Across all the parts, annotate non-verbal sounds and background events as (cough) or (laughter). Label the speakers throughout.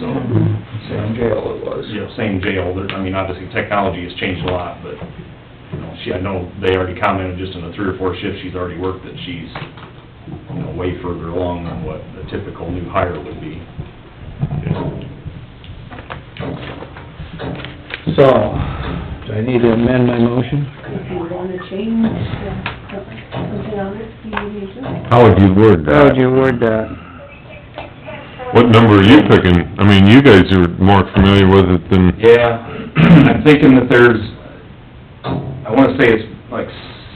Speaker 1: so.
Speaker 2: Same jail it was.
Speaker 1: You know, same jail, There- I mean, obviously, technology has changed a lot, but, you know, she, I know they already commented just in the three or four shifts she's already worked that she's, you know, way further along than what the typical new hire would be.
Speaker 3: So, do I need to amend my motion?
Speaker 4: If you wanna change uh, something on it, you need to.
Speaker 5: How would you word that?
Speaker 3: How would you word that?
Speaker 5: What number are you picking? I mean, you guys are more familiar with it than,
Speaker 1: Yeah, (clears throat) I'm thinking that there's, I wanna say it's like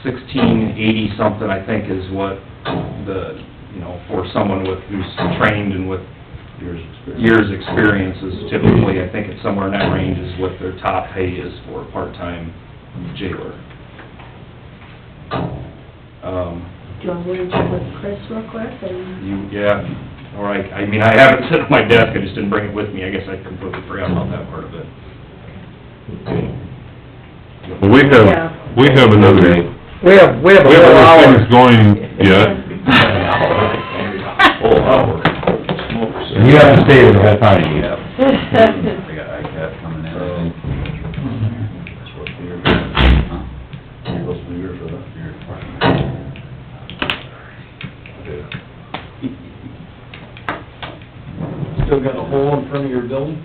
Speaker 1: sixteen eighty something, I think, is what the, you know, for someone with, who's trained and with years' experience is typically, I think it's somewhere in that range is what their top pay is for a part-time jailer. Um,
Speaker 4: Do you wanna check with Chris real quick and?
Speaker 1: you, yeah, or I, I mean, I have it sitting at my desk, I just didn't bring it with me, I guess I completely forgot about that part of it.
Speaker 5: well, we
Speaker 4: Yeah.
Speaker 5: have, we have another,
Speaker 3: We have, we have a
Speaker 5: we have
Speaker 3: whole
Speaker 5: other
Speaker 3: hour.
Speaker 5: things going yet.
Speaker 1: Whole hour.
Speaker 6: And you haven't stayed the whole time yet.
Speaker 7: (laughs)
Speaker 4: I
Speaker 6: got ICAP coming in, I think. That's what the year, huh? Supposed to be here for that year.
Speaker 2: Still got a hole in front of your building?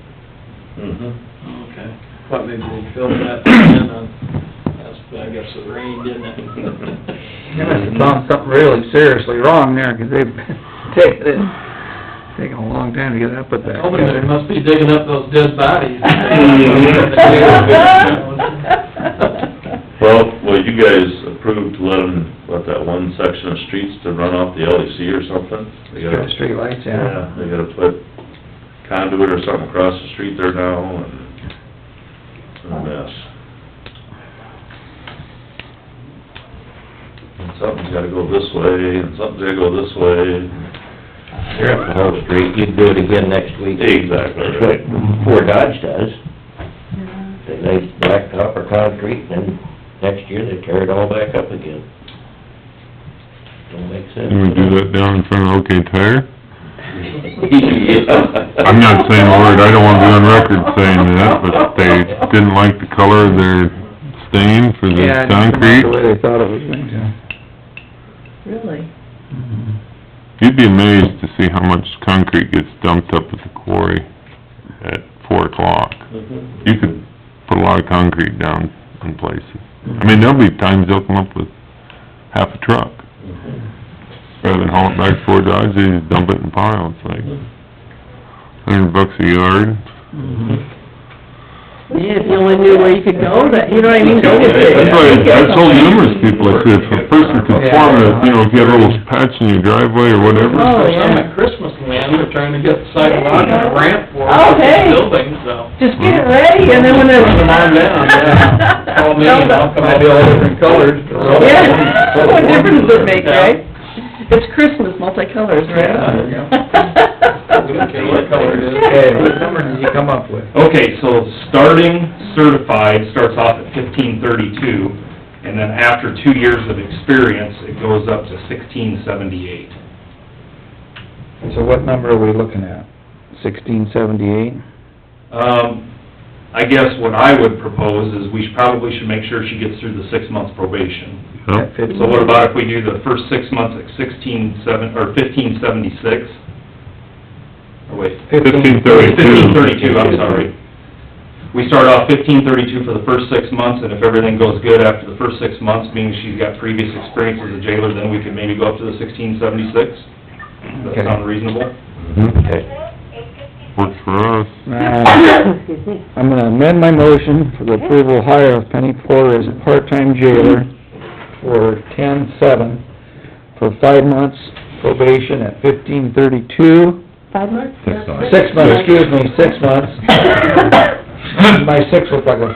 Speaker 6: Mm-hmm.
Speaker 2: Okay. Thought maybe they filled that in on, that's, I guess it rained, didn't (laughs)
Speaker 3: They
Speaker 2: it?
Speaker 3: must have found something really seriously wrong there, 'cause they've taken, it- taken a long time to get that put back
Speaker 2: Hoping they
Speaker 3: together.
Speaker 2: must be digging up those dead
Speaker 3: (laughs)
Speaker 2: bodies. Mm-hmm.
Speaker 8: Well, well, you guys approved letting, what, that one section of streets to run off the LEC or something? They
Speaker 3: Put the
Speaker 8: gotta,
Speaker 3: streetlights in.
Speaker 8: yeah, they gotta put conduit or something across the street there now, and it's a mess. And something's gotta go this way, and something's gotta go this way.
Speaker 6: You're up the whole street, you'd do it again next week.
Speaker 8: Exactly.
Speaker 6: That's what Fort Dodge does. They lay blacktop or concrete, and next year they tear it all back up again. Don't make sense.
Speaker 5: Can we do that down in front of OK Tire?
Speaker 6: Yeah.
Speaker 5: I'm not saying a word, I don't wanna be on record saying that, but they didn't like the color of their stain for
Speaker 3: Yeah,
Speaker 5: the
Speaker 3: and it's not the
Speaker 5: concrete.
Speaker 3: way they thought it was going to.
Speaker 7: Really?
Speaker 5: You'd be amazed to see how much concrete gets dumped up at the quarry at four o'clock. You could put a lot of concrete down in places. I mean, there'll be times they'll come up with half a truck. Rather than haul it back to Fort Dodge, they just dump it in piles, like hundred bucks a yard.
Speaker 7: Yeah, if you only knew where you could go, that, you know what I mean, go with it.
Speaker 5: That's why, I told numerous people, I said, if a person could form a, you know, if you have a little patch in your driveway or whatever,
Speaker 7: Oh,
Speaker 2: Some
Speaker 7: yeah,
Speaker 2: at Christmas land, they're trying to get the sidewalk
Speaker 3: (laughs)
Speaker 2: and a ramp for
Speaker 7: Oh,
Speaker 2: the
Speaker 7: hey.
Speaker 2: building, so.
Speaker 7: just get it ready, and then when it's...
Speaker 2: Put them on down, yeah.
Speaker 7: (laughs)
Speaker 2: Call me, and I'll come out.
Speaker 3: Might be all different colors, but...
Speaker 2: (laughs)
Speaker 7: Yeah, what difference does it make,
Speaker 2: Yeah.
Speaker 7: right? It's Christmas, multicolors,
Speaker 2: Yeah,
Speaker 7: (laughs)
Speaker 2: there you go.
Speaker 7: right?
Speaker 2: We don't care what color it is.
Speaker 3: Okay, what number did you come up with?
Speaker 1: (laughs) Okay, so starting certified starts off at fifteen thirty-two, and then after two years of experience, it goes up to sixteen seventy-eight.
Speaker 3: So what number are we looking at? Sixteen seventy-eight?
Speaker 1: Um, I guess what I would propose is we should- probably should make sure she gets through the six months probation.
Speaker 5: Yep.
Speaker 3: That fits.
Speaker 1: So what about if we do the first six months at sixteen seven, or fifteen seventy-six? Or wait,
Speaker 5: fifteen
Speaker 1: Fifteen
Speaker 5: thirty-two.
Speaker 1: thirty-two, I'm sorry. We start off fifteen thirty-two for the first six months, and if everything goes good after the first six months, meaning she's got previous experience as a jailer, then we can maybe go up to the sixteen seventy-six? Does
Speaker 3: Okay.
Speaker 1: that sound reasonable?
Speaker 6: Okay.
Speaker 5: Works for us.
Speaker 3: Uh, I'm gonna amend my motion for the approval hire of Penny Porter as a part-time jailer for ten-seven, for five months probation at fifteen thirty-two,
Speaker 7: Five months?
Speaker 6: Six months.
Speaker 3: six months, excuse me, six months. (laughs)
Speaker 7: (laughs)
Speaker 3: My six looked like a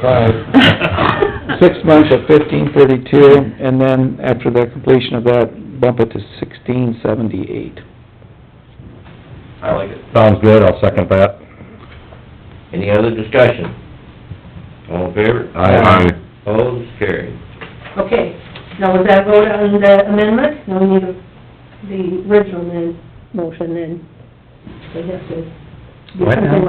Speaker 1: (laughs)
Speaker 3: five. Six months at fifteen thirty-two, and then after the completion of that, bump it to sixteen seventy-eight.
Speaker 1: I like it.
Speaker 6: Sounds good, I'll second that. Any other discussion? All in favor?
Speaker 5: Aye.
Speaker 6: Opposed, carried.
Speaker 4: Okay, now was that vote on the amendment? No, we need a- the original then, motion then. We have to. do
Speaker 3: What now?
Speaker 4: something